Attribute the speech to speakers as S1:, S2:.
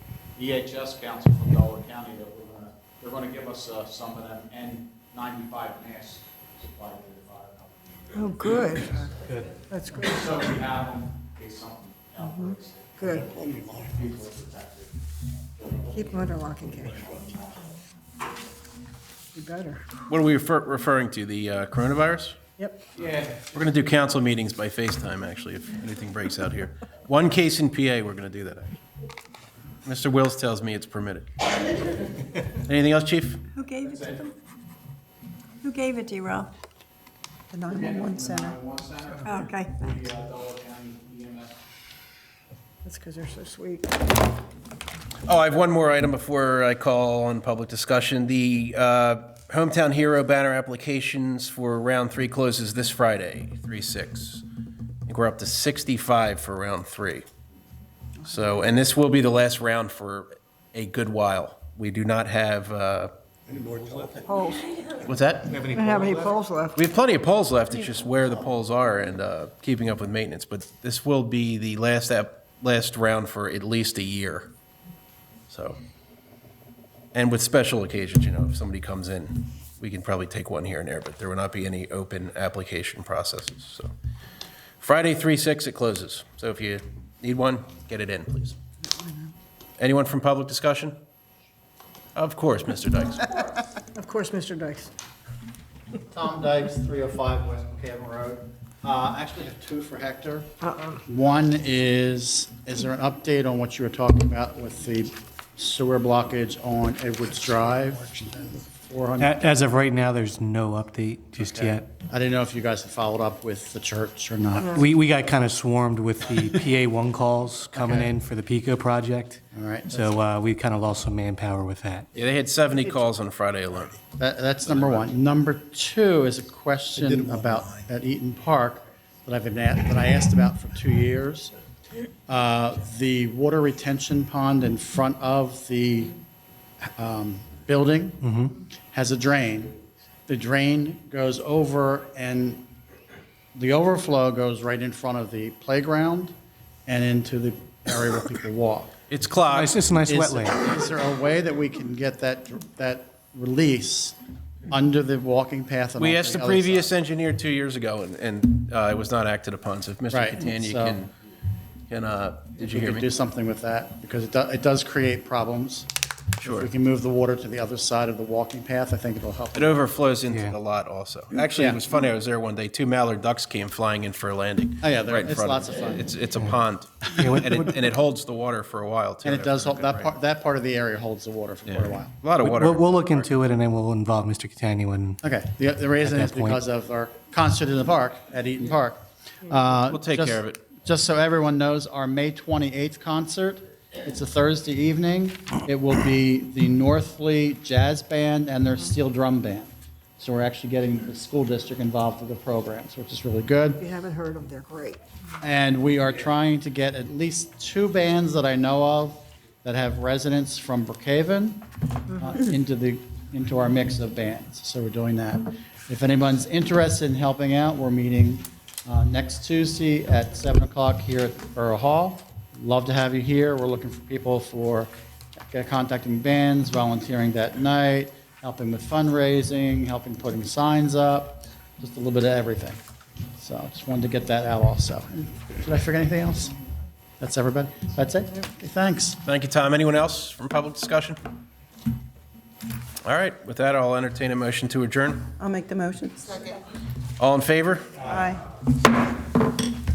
S1: EHS E council from Delaware County that we're gonna, they're gonna give us uh, some of them N ninety-five masks supplied to the fire company.
S2: Oh, good.
S3: Good.
S2: That's good,
S1: So we have them, in case something outbreaks,
S2: good.
S1: people are protected.
S2: Keep them under lock and key. You better.
S4: What are we refer- referring to, the uh, coronavirus?
S2: Yep.
S1: Yeah,
S4: We're going to do council meetings by FaceTime, actually, if anything breaks out here. One case in PA, we're going to do that. actually. Mr. Wills tells me it's permitted. Anything else, chief?
S5: Who gave it to
S1: That's it.
S5: them? Who gave it to you, Ralph?
S2: The 911 center.
S1: One center,
S5: Oh, Okay,
S1: the uh, Delaware County E EMS
S2: That's because they're so sweet.
S4: Oh, I have one more item before I call on public discussion. The uh, Hometown Hero banner applications for round three closes this Friday, 3/6. I think we're up to 65 for round three. So, and this will be the last round for a good while. We do not have, uh,
S2: Polls.
S4: what's that?
S3: Have
S2: I
S3: any
S2: don't have any polls left.
S4: We have plenty of poles left, it's just where the poles are and uh, keeping up with maintenance, but this will be the last app, last round for at least a year. So, and with special occasions, you know, if somebody comes in, we can probably take one here and there, but there will not be any open application processes, so. Friday, three, six, it closes, so if you need one, get it in, please. Anyone from public discussion? Of course, Mr. Dykes.
S2: Of course, Mr. Dykes.
S6: Tom Dykes, 305 West McCaven Road. Uh, I Actually have two for Hector. One is, is there an update on what you were talking about with the sewer blockage on Edwards Drive? 400,
S3: As of right now, there's no update just yet.
S6: I didn't know if you guys had followed up with the church or not.
S3: We, we got kind of swarmed with the PA1 calls coming
S6: Okay.
S3: in for the PICO project.
S6: All right.
S3: So uh, we kind of lost some manpower with that.
S4: Yeah, they had 70 calls on Friday alone.
S6: That, that's number one. Number two is a question about, at Eaton Park, that I've been, a- that I asked about for two years. Uh, The water retention pond in front of the um, building has a drain. The drain goes over and the overflow goes right in front of the playground and into the area where people walk.
S4: It's clogged.
S3: It's just a nice
S6: Is-
S3: wetland.
S6: Is there a way that we can get that, that release under the walking path and
S4: We
S6: off
S4: asked the
S6: other
S4: previous
S6: side?
S4: engineer two years ago, and, and uh, it was not acted upon, so if Mr.
S6: Right,
S4: Catania
S6: so-
S4: can, can, uh, did
S6: If
S4: you
S6: we
S4: hear
S6: could do
S4: me?
S6: something with that, because it, do- it does create problems. If
S4: Sure.
S6: we can move the water to the other side of the walking path, I think it'll help.
S4: It overflows into
S3: Yeah.
S4: the lot also. Actually, it
S6: Yeah.
S4: was funny, I was there one day, two mallard ducks came flying in for a landing.
S6: Oh, yeah, there-
S4: right in
S6: it's
S4: front of
S6: lots
S4: me.
S6: of fun.
S4: It's, it's a pond,
S3: Yeah,
S4: and
S3: what-
S4: it, and it holds the water for a while, too.
S6: And it does,
S4: after a good
S6: help that
S4: rain.
S6: part, that part of the area holds the water for quite a while.
S4: A lot of water.
S3: We'll, we'll look into it and then we'll involve Mr. Catania when,
S6: Okay, the, the reason
S3: At
S6: is
S3: that point.
S6: because of our concert in the park, at Eaton Park. We'll
S4: take care of it.
S6: Just so everyone knows, our May 28th concert, it's a Thursday evening. It will be the Northley Jazz Band and their steel drum band. So we're actually getting the school district involved with the programs, which is really good.
S2: If you haven't heard them, they're great.
S6: And we are trying to get at least two bands that I know of that have residents from Brookhaven uh, into the, into our mix of bands. So we're doing that. If anyone's interested in helping out, we're meeting uh, next Tuesday at 7 o'clock here at Borough Hall. Love to have you here. We're looking for people for uh, contacting bands, volunteering that night, helping with fundraising, helping putting signs up, just a little bit of everything. So I just wanted to get that out also. Did I forget anything else? That's everybody? That's it? Okay, Thanks.
S4: Thank you, Tom. Anyone else from public discussion? All right, with that, I'll entertain a motion to adjourn.
S5: I'll make the motion.
S4: All in favor?
S5: Aye.